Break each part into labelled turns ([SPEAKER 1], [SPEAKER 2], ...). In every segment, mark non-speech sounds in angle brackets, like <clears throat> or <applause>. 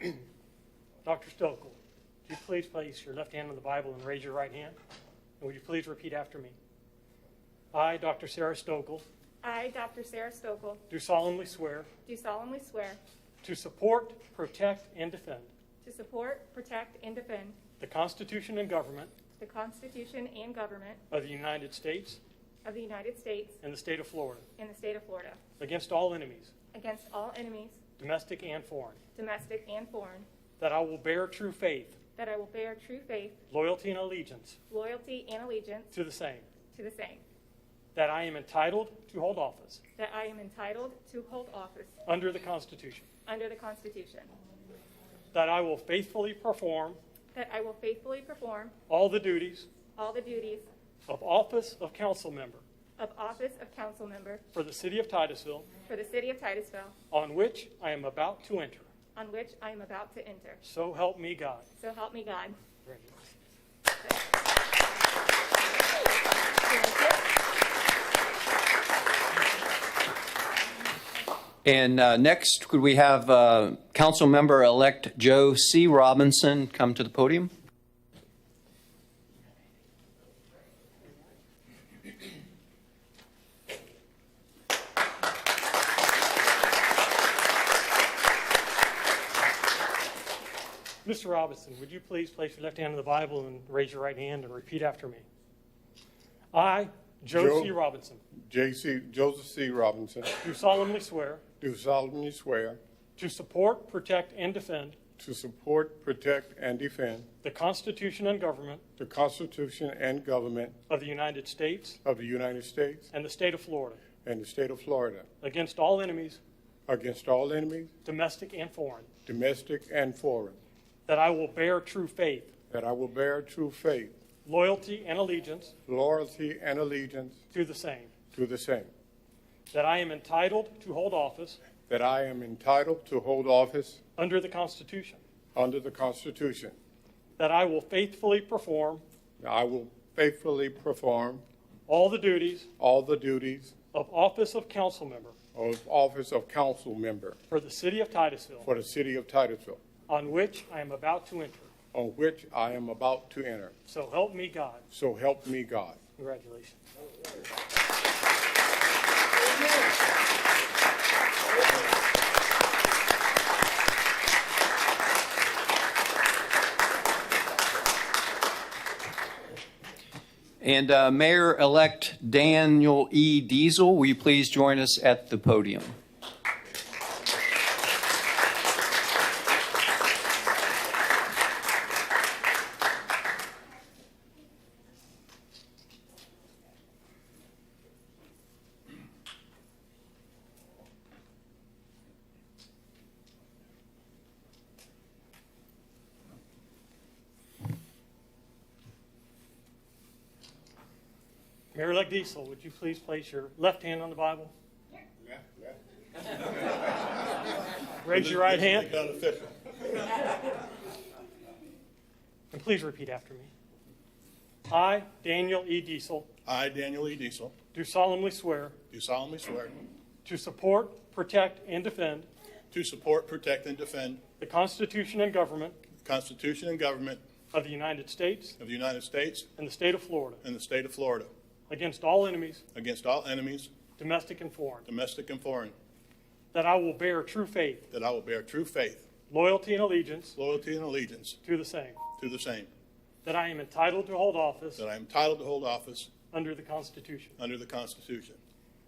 [SPEAKER 1] <clears throat> Dr. Stokel, would you please place your left hand on the Bible and raise your right hand? And would you please repeat after me? I, Dr. Sarah Stokel,
[SPEAKER 2] I, Dr. Sarah Stokel,
[SPEAKER 1] do solemnly swear
[SPEAKER 2] do solemnly swear
[SPEAKER 1] to support, protect, and defend
[SPEAKER 2] to support, protect, and defend
[SPEAKER 1] the Constitution and government
[SPEAKER 2] the Constitution and government
[SPEAKER 1] of the United States
[SPEAKER 2] of the United States
[SPEAKER 1] and the state of Florida
[SPEAKER 2] and the state of Florida
[SPEAKER 1] against all enemies,
[SPEAKER 2] against all enemies,
[SPEAKER 1] domestic and foreign,
[SPEAKER 2] domestic and foreign,
[SPEAKER 1] that I will bear true faith,
[SPEAKER 2] that I will bear true faith,
[SPEAKER 1] loyalty, and allegiance
[SPEAKER 2] loyalty, and allegiance
[SPEAKER 1] to the same,
[SPEAKER 2] to the same,
[SPEAKER 1] that I am entitled to hold office
[SPEAKER 2] that I am entitled to hold office
[SPEAKER 1] under the Constitution,
[SPEAKER 2] under the Constitution,
[SPEAKER 1] that I will faithfully perform
[SPEAKER 2] that I will faithfully perform
[SPEAKER 1] all the duties
[SPEAKER 2] all the duties
[SPEAKER 1] of office of council member
[SPEAKER 2] of office of council member
[SPEAKER 1] for the city of Titusville
[SPEAKER 2] for the city of Titusville,
[SPEAKER 1] on which I am about to enter.
[SPEAKER 2] on which I am about to enter.
[SPEAKER 1] So help me God.
[SPEAKER 2] So help me God.
[SPEAKER 3] And uh, next, could we have uh, Councilmember-elect Joe C. Robinson come to the podium?
[SPEAKER 1] Mr. Robinson, would you please place your left hand on the Bible and raise your right hand and repeat after me? I, Joe
[SPEAKER 4] Joe.
[SPEAKER 1] C. Robinson,
[SPEAKER 4] J.C. Joseph C. Robinson,
[SPEAKER 1] do solemnly swear
[SPEAKER 4] do solemnly swear
[SPEAKER 1] to support, protect, and defend
[SPEAKER 4] to support, protect, and defend
[SPEAKER 1] the Constitution and government
[SPEAKER 4] the Constitution and government
[SPEAKER 1] of the United States
[SPEAKER 4] of the United States
[SPEAKER 1] and the state of Florida
[SPEAKER 4] and the state of Florida
[SPEAKER 1] against all enemies,
[SPEAKER 4] against all enemies,
[SPEAKER 1] domestic and foreign,
[SPEAKER 4] domestic and foreign,
[SPEAKER 1] that I will bear true faith,
[SPEAKER 4] that I will bear true faith,
[SPEAKER 1] loyalty, and allegiance
[SPEAKER 4] loyalty, and allegiance
[SPEAKER 1] to the same,
[SPEAKER 4] to the same,
[SPEAKER 1] that I am entitled to hold office
[SPEAKER 4] that I am entitled to hold office
[SPEAKER 1] under the Constitution,
[SPEAKER 4] under the Constitution,
[SPEAKER 1] that I will faithfully perform
[SPEAKER 4] that I will faithfully perform
[SPEAKER 1] all the duties
[SPEAKER 4] all the duties
[SPEAKER 1] of office of council member
[SPEAKER 4] of office of council member
[SPEAKER 1] for the city of Titusville,
[SPEAKER 4] for the city of Titusville,
[SPEAKER 1] on which I am about to enter.
[SPEAKER 4] on which I am about to enter.
[SPEAKER 1] So help me God.
[SPEAKER 4] So help me God.
[SPEAKER 1] Congratulations.
[SPEAKER 3] And uh, Mayor-elect Daniel E. Diesel, will you please join us at the podium?
[SPEAKER 1] Mayor-elect Diesel, would you please place your left hand on the Bible? Raise your right hand and please repeat after me. I, Daniel E. Diesel,
[SPEAKER 5] I, Daniel E. Diesel,
[SPEAKER 1] do solemnly swear
[SPEAKER 5] do solemnly swear
[SPEAKER 1] to support, protect, and defend
[SPEAKER 5] to support, protect, and defend
[SPEAKER 1] the Constitution and government
[SPEAKER 5] the Constitution and government
[SPEAKER 1] of the United States
[SPEAKER 5] of the United States
[SPEAKER 1] and the state of Florida
[SPEAKER 5] and the state of Florida
[SPEAKER 1] against all enemies,
[SPEAKER 5] against all enemies,
[SPEAKER 1] domestic and foreign,
[SPEAKER 5] domestic and foreign,
[SPEAKER 1] that I will bear true faith,
[SPEAKER 5] that I will bear true faith,
[SPEAKER 1] loyalty, and allegiance
[SPEAKER 5] loyalty, and allegiance
[SPEAKER 1] to the same,
[SPEAKER 5] to the same,
[SPEAKER 1] that I am entitled to hold office
[SPEAKER 5] that I am entitled to hold office
[SPEAKER 1] under the Constitution,
[SPEAKER 5] under the Constitution.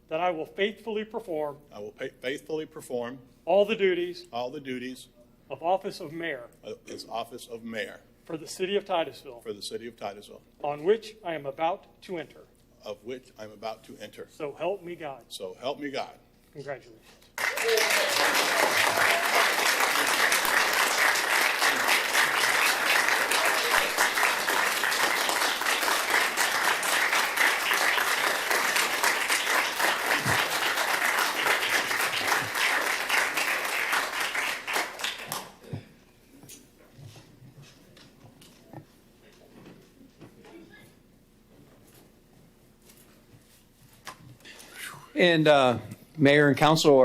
[SPEAKER 1] that I will faithfully perform
[SPEAKER 5] I will pa- faithfully perform
[SPEAKER 1] all the duties
[SPEAKER 5] all the duties
[SPEAKER 1] of office of mayor
[SPEAKER 5] of this office of mayor
[SPEAKER 1] for the city of Titusville,
[SPEAKER 5] for the city of Titusville,
[SPEAKER 1] on which I am about to enter.
[SPEAKER 5] of which I am about to enter.
[SPEAKER 1] So help me God.
[SPEAKER 5] So help me God.
[SPEAKER 1] Congratulations.
[SPEAKER 3] And uh, Mayor and Council